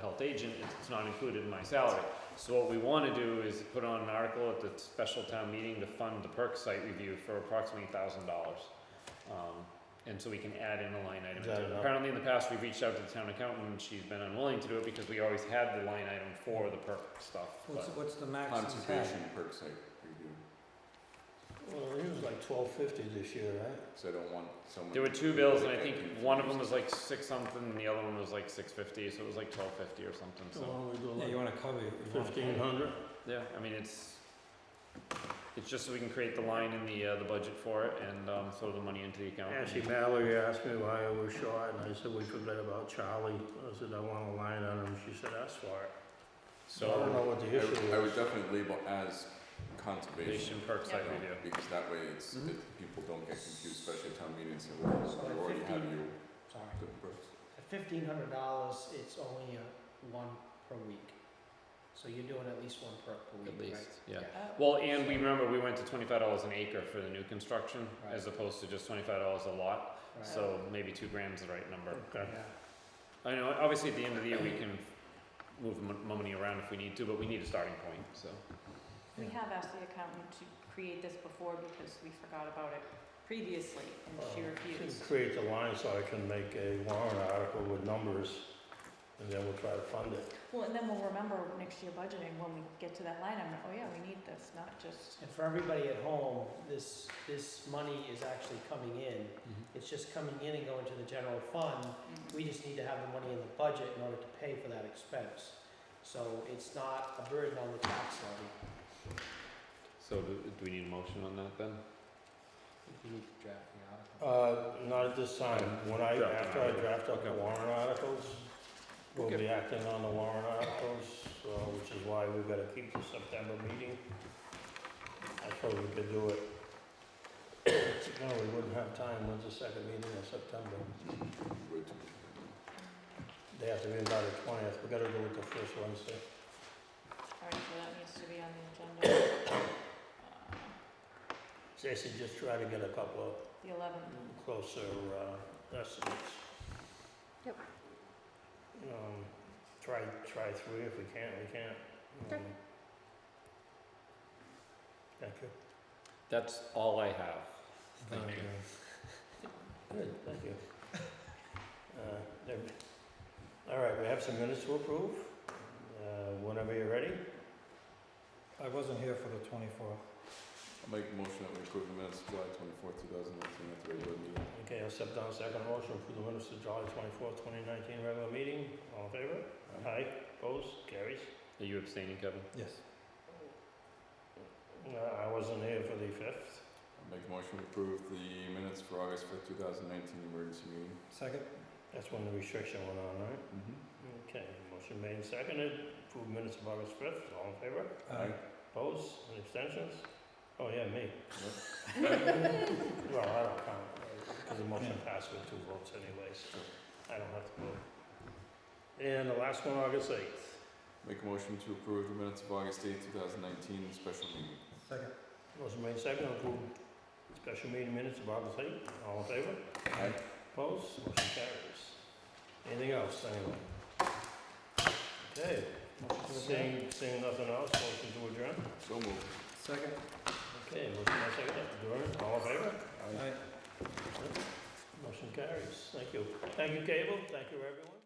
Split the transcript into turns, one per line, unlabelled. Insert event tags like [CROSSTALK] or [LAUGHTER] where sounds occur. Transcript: health agent, it's not included in my salary. So what we wanna do is put on an article at the special town meeting to fund the perk site review for approximately thousand dollars. Um, and so we can add in a line item.
Add it up.
Apparently in the past, we've reached out to the town accountant and she's been unwilling to do it because we always had the line item for the perk stuff.
What's,
but-
what's the max? in town?
Conservation perk site review,
Well, it was like twelve fifty this year, right?
so I don't want someone.
There were
to
two
be
bills, and
like
I
that
think one of them was like six something, and the other one was like six fifty, so it was like twelve fifty or something,
So why
so,
don't we go
Yeah, you
like
wanna cover, you wanna cover.
fifteen hundred?
yeah, I mean, it's, it's just so we can create the line in the, uh, the budget for it and, um, throw the money into the account.
Actually, Mallory asked me why I was short, and I said, we forgot about Charlie. I said, I want a line on him, she said, that's for it. So I don't know
So,
what the
I would, I
issue
would
is.
definitely label as conservation,
nation perk site
you know,
review.
because that way it's,
Mhm.
it- people don't get confused, especially at town meetings, and we're, we already have you,
Sorry.
the perks.
At fifteen hundred dollars, it's only uh one per week, so you're doing at least one per per week,
At
right?
least, yeah. Well, and we remember, we went to twenty-five dollars an acre for the new construction,
Right.
as opposed to just twenty-five dollars a lot,
Right.
so maybe two grams is the right number.
Okay.
Yeah.
I know, obviously, at the end of the year, we can move mon- money around if we need to, but we need a starting point, so.
We have asked the accountant to create this before because we forgot about it previously and she
Well,
refused.
Should create the line so I can make a warrant article with numbers, and then we'll try to fund it.
Well, and then we'll remember next year budgeting when we get to that line, I'm like, oh yeah, we need this, not just.
And for everybody at home, this, this money is actually coming in. It's just coming in and going to the general fund.
Mm-hmm.
We just need to have the money in the budget in order to pay for that expense. So it's not a burden on the tax levy.
So do, do we need a motion on that then?
You need to draft the article.
Uh, not at this time. When I,
Draft an
after I
article.
draft up the
Okay.
warrant articles, we'll
Okay.
be acting on the warrant articles, uh, which is why we've gotta keep the September meeting. I thought we could do it. [COUGHS] No, we wouldn't have time. When's the second meeting in September?
Would-
They have to be about the twentieth. We gotta do it the first Wednesday.
Alright, so that needs to be on the agenda. [COUGHS] Uh,
Stacy, just try to get a couple of
The eleventh,
closer uh, estimates.
Yep.
Um, Try, try three if we can, we can't.
Okay.
um, Thank you.
That's all I have. Thank
Um,
you.
Good, thank you. Uh, there- All right, we have some minutes to approve, Uh, whenever you're ready.
I wasn't here for the twenty-fourth.
I'll make a motion that we approve the minutes of July twenty-fourth, two thousand nineteen, at the regular meeting.
Okay, I'll step down second motion, approve the minutes of July twenty-fourth, twenty nineteen, regular meeting, all in favor? Aye, opposed, carries.
Are you abstaining, Kevin?
Yes.
No, Uh, I wasn't here for the fifth.
I'll make a motion to approve the minutes for August fifth, two thousand nineteen, emergency meeting.
Second?
That's when the restriction went on, right?
Mm-hmm.
Okay, motion made and seconded, approve minutes of August fifth, all in favor?
Aye.
Opposed, any abstentions? Oh, yeah, me.
Yep.
Well, I don't count, because the motion passed with two votes anyways, I don't have to vote. And the last one, August eighth.
Make a motion to approve the minutes of August eighth, two thousand nineteen, special meeting.
Second.
Motion made and seconded, approve special meeting minutes of August eighth, all in favor?
Aye.
Opposed, motion carries. Anything else, anyone? Okay, seeing, seeing nothing else, motion to adjourn?
So moved.
Second?
Okay, motion by second, adjourn, all in favor?
Aye.
Motion carries, thank you. Thank you, Cable, thank you, everyone.